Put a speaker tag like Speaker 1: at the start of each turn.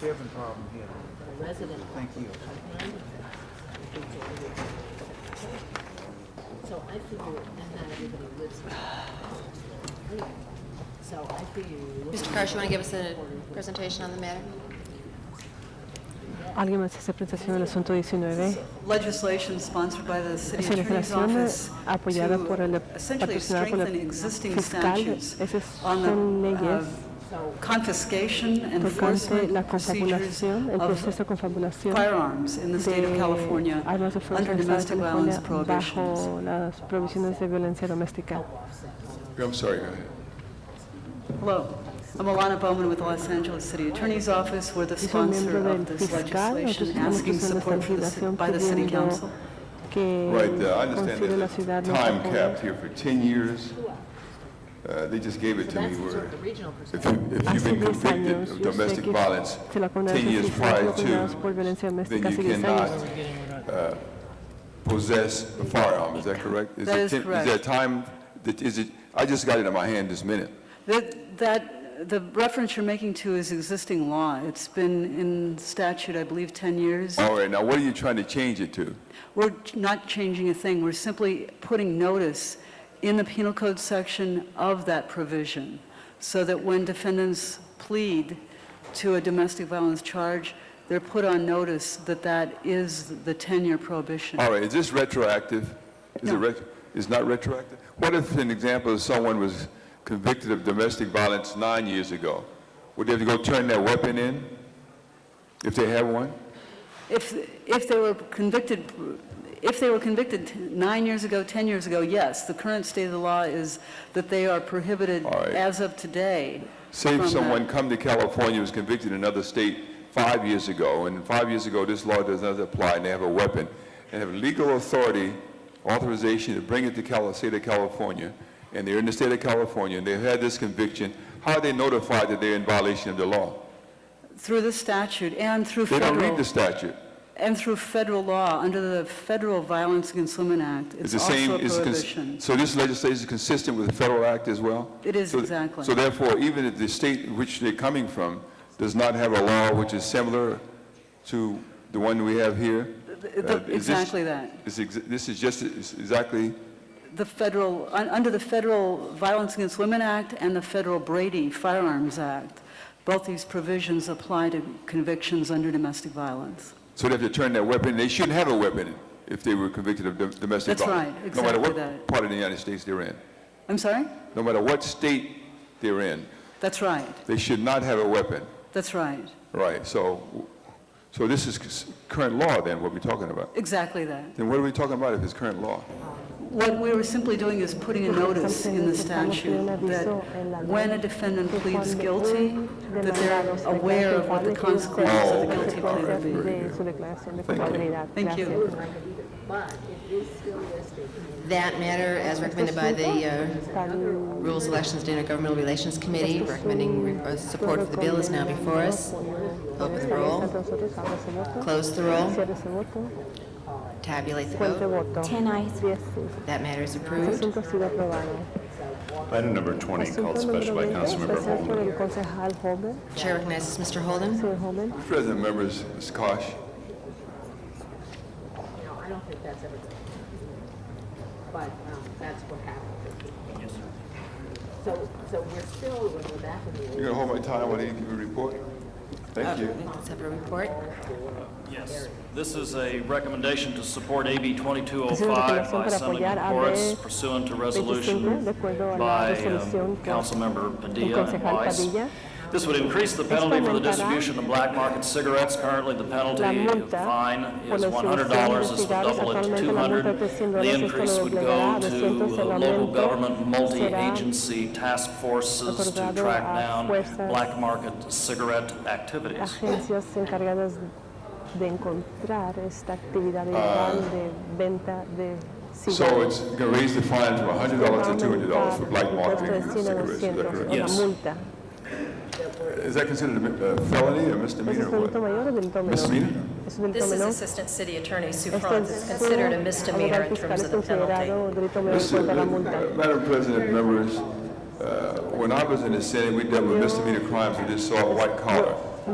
Speaker 1: Chevron problem here.
Speaker 2: resident.
Speaker 1: Thank you.
Speaker 2: So I figure, and not everybody lives here. So I figure. you're looking
Speaker 3: Mr. Karsh, you want to give
Speaker 2: at
Speaker 3: us a presentation on the matter?
Speaker 4: ¿Alguien más hace presentación del asunto 19?
Speaker 5: legislation sponsored by the city
Speaker 4: Es
Speaker 5: attorney's
Speaker 4: legislación
Speaker 5: office
Speaker 4: apoyada
Speaker 5: to
Speaker 4: por el-
Speaker 5: essentially
Speaker 4: patrocinada por el
Speaker 5: strengthen existing
Speaker 4: fiscal.
Speaker 5: statutes
Speaker 4: Esas
Speaker 5: on
Speaker 4: son
Speaker 5: the
Speaker 4: leyes
Speaker 5: uh, confiscation,
Speaker 4: tocante
Speaker 5: enforcement
Speaker 4: la
Speaker 5: procedures
Speaker 4: confabulación, el proceso de
Speaker 5: of
Speaker 4: confabulación
Speaker 5: firearms in the state of
Speaker 4: de
Speaker 5: California
Speaker 4: armas de fuego
Speaker 5: under
Speaker 4: en el estado
Speaker 5: domestic
Speaker 4: de
Speaker 5: violence
Speaker 4: California
Speaker 5: prohibitions.
Speaker 4: bajo las provisiones de violencia doméstica.
Speaker 6: I'm sorry, go ahead.
Speaker 5: Hello, I'm Alana Bowman with the Los Angeles City Attorney's Office. We're the
Speaker 4: Yo soy
Speaker 5: sponsor
Speaker 4: miembro del
Speaker 5: of this
Speaker 4: fiscal, nosotros
Speaker 5: legislation
Speaker 4: estamos
Speaker 5: asking
Speaker 4: usando esta
Speaker 5: support for the ci-
Speaker 4: legislación
Speaker 5: by the city
Speaker 4: pidiendo
Speaker 5: council.
Speaker 4: que
Speaker 6: Right, uh, I understand
Speaker 4: considere la
Speaker 6: there's a
Speaker 4: ciudad no
Speaker 6: time
Speaker 4: Japón.
Speaker 6: cap here for 10 years. Uh, They just gave it to me
Speaker 2: That's
Speaker 6: where
Speaker 2: the regional
Speaker 6: if
Speaker 2: perspective.
Speaker 6: you- if you've
Speaker 4: Hace
Speaker 6: been
Speaker 4: 10
Speaker 6: convicted
Speaker 4: años,
Speaker 6: of
Speaker 4: yo sé
Speaker 6: domestic
Speaker 4: que
Speaker 6: violence
Speaker 4: se la condena
Speaker 6: 10 years
Speaker 4: de
Speaker 6: prior
Speaker 4: prior por
Speaker 6: to,
Speaker 4: violencia
Speaker 6: then
Speaker 4: doméstica
Speaker 6: you
Speaker 4: hace 10 años.
Speaker 6: cannot uh, possess a firearm, is that correct?
Speaker 5: That
Speaker 6: it
Speaker 5: is
Speaker 6: 10 Is
Speaker 5: correct.
Speaker 6: there a time, that is it, I just got it in my hand this minute.
Speaker 5: That, that, the reference you're making to is existing law. It's been in statute, I believe, 10 years.
Speaker 6: All right, now what are you trying to change it to?
Speaker 5: We're not changing a thing, we're simply putting notice in the penal code section of that provision, so that when defendants plead to a domestic violence charge, they're put on notice that that is the 10-year prohibition.
Speaker 6: All right, is this retroactive? Is it
Speaker 5: No.
Speaker 6: ret, it's not retroactive? What if an example is someone was convicted of domestic violence nine years ago? Would they have to go turn their weapon in if they have one?
Speaker 5: If, if they were convicted, if they were convicted t- nine years ago, 10 years ago, yes, the current state of the law is that they are prohibited
Speaker 6: All right.
Speaker 5: as of today.
Speaker 6: Say if
Speaker 5: from that.
Speaker 6: someone come to California, was convicted in another state five years ago, and five years ago this law does not apply, and they have a weapon, and have legal authority, authorization to bring it to Cal, state of California, and they're in the state of California, and they've had this conviction, how are they notified that they're in violation of the law?
Speaker 5: Through the statute and through
Speaker 6: They don't read
Speaker 5: federal,
Speaker 6: the statute.
Speaker 5: and through federal law, under the Federal Violence Against Women Act, it's
Speaker 6: It's the same,
Speaker 5: also a
Speaker 6: it's, cons-
Speaker 5: prohibition.
Speaker 6: so this legislation is consistent with the federal act as well?
Speaker 5: It is
Speaker 6: So-
Speaker 5: exactly.
Speaker 6: So therefore, even if the state in which they're coming from does not have a law which is similar to the one we have here?
Speaker 5: The- the-
Speaker 6: uh, is this-
Speaker 5: Exactly that.
Speaker 6: is ex- This is just, is exactly,
Speaker 5: The federal, un- under the Federal Violence Against Women Act and the Federal Brady Firearms Act, both these provisions apply to convictions under domestic violence.
Speaker 6: so they have to turn their weapon, they shouldn't have a weapon if they were convicted of dom- domestic
Speaker 5: That's
Speaker 6: violence.
Speaker 5: right,
Speaker 6: No matter
Speaker 5: exactly
Speaker 6: what
Speaker 5: that.
Speaker 6: part of the United States they're in,
Speaker 5: I'm sorry?
Speaker 6: no matter what state they're in,
Speaker 5: That's right,
Speaker 6: they should not have a weapon.
Speaker 5: that's right,
Speaker 6: Right, so, so this is c- current law then, what we're talking about?
Speaker 5: exactly that.
Speaker 6: Then what are we talking about if it's current law?
Speaker 5: What we were simply doing is putting a notice in the statute that when a defendant pleads guilty, that they're aware of what the consequences of the guilty plea would be.
Speaker 4: de su declaración de culpabilidad.
Speaker 5: Thank you.
Speaker 4: Gracias.
Speaker 2: But it is still listed in
Speaker 3: That matter, as recommended by the uh, Rules, Elections, and Intergovernmental Relations Committee, recommending re- uh, support for the bill is now before us. Open the roll,
Speaker 4: Nosotros abra ese voto,
Speaker 3: close the roll,
Speaker 4: cierre ese voto,
Speaker 3: tabulate the
Speaker 4: cuente
Speaker 3: vote.
Speaker 4: voto.
Speaker 7: 10 eyes.
Speaker 3: That matter is
Speaker 4: El
Speaker 3: approved.
Speaker 4: asunto ha sido aprobado.
Speaker 8: Item number 20, called
Speaker 4: Asunto número
Speaker 8: special by
Speaker 4: 20,
Speaker 8: Councilmember
Speaker 4: especial por
Speaker 8: Holman.
Speaker 4: el concejal Holden.
Speaker 3: Chair recognizes Mr. Holden.
Speaker 4: Señor Holden,
Speaker 6: President members, Ms. Kosh,
Speaker 2: No, I don't think that's ever done. But um, that's what happened. Yes, sir. So, so we're still, when we're back in the.
Speaker 6: you gonna hold my time while they give a report? Thank you.
Speaker 2: Uh,
Speaker 3: Let's have a report.
Speaker 9: Yes, this is a recommendation to support AB
Speaker 4: recomendación
Speaker 9: 2205 by
Speaker 4: para
Speaker 9: Senator
Speaker 4: apoyar AB
Speaker 9: Horace pursuant to
Speaker 4: 25,
Speaker 9: resolution
Speaker 4: de acuerdo a la
Speaker 9: by
Speaker 4: resolución
Speaker 9: um,
Speaker 4: por
Speaker 9: Councilmember
Speaker 4: el
Speaker 9: Padilla and
Speaker 4: concejal
Speaker 9: Weiss.
Speaker 4: Padilla.
Speaker 9: This would increase the penalty for the
Speaker 4: Experimentará
Speaker 9: distribution of black market cigarettes. Currently, the
Speaker 4: la
Speaker 9: penalty
Speaker 4: multa
Speaker 9: fine
Speaker 4: por
Speaker 9: is
Speaker 4: la
Speaker 9: $100.
Speaker 4: distribución de
Speaker 9: This would
Speaker 4: cigarros. Actualmente la multa es
Speaker 9: double it to
Speaker 4: de
Speaker 9: 200.
Speaker 4: 100
Speaker 9: The
Speaker 4: dólares. Esto lo doblegará a 200.
Speaker 9: increase would go to
Speaker 4: El
Speaker 9: uh, local
Speaker 4: aumento
Speaker 9: government
Speaker 4: será
Speaker 9: multi-agency task forces to
Speaker 4: otorgado
Speaker 9: track
Speaker 4: a
Speaker 9: down
Speaker 4: fuerzas
Speaker 9: black market cigarette activities.
Speaker 4: agencias encargadas de encontrar esta actividad ilegal de venta de
Speaker 6: So
Speaker 4: cigarros.
Speaker 6: it's gonna raise the fine from
Speaker 4: Va a
Speaker 6: $100 to $200 for black
Speaker 4: aumentar el
Speaker 6: marketing
Speaker 4: impuesto de 100 a
Speaker 6: cigarettes, is
Speaker 4: 200
Speaker 6: that
Speaker 4: o
Speaker 6: correct?
Speaker 4: la
Speaker 9: Yes.
Speaker 4: multa.
Speaker 6: Is that considered a mi- a felony or
Speaker 4: ¿Es
Speaker 6: misdemeanor
Speaker 4: un
Speaker 6: or
Speaker 4: delito
Speaker 6: what?
Speaker 4: mayor o delito menor?
Speaker 6: Misdemeanor?
Speaker 4: Es un delito
Speaker 10: This is
Speaker 4: menor.
Speaker 10: Assistant City Attorney Sue
Speaker 4: Este
Speaker 10: Franz. It's considered a misdemeanor in terms of the penalty.
Speaker 4: considerado delito menor en
Speaker 6: Mr.
Speaker 4: cuanto a la multa.
Speaker 6: uh, Madam President members, uh, when I was in the Senate, we dealt with misdemeanor crimes of this sort, white collar.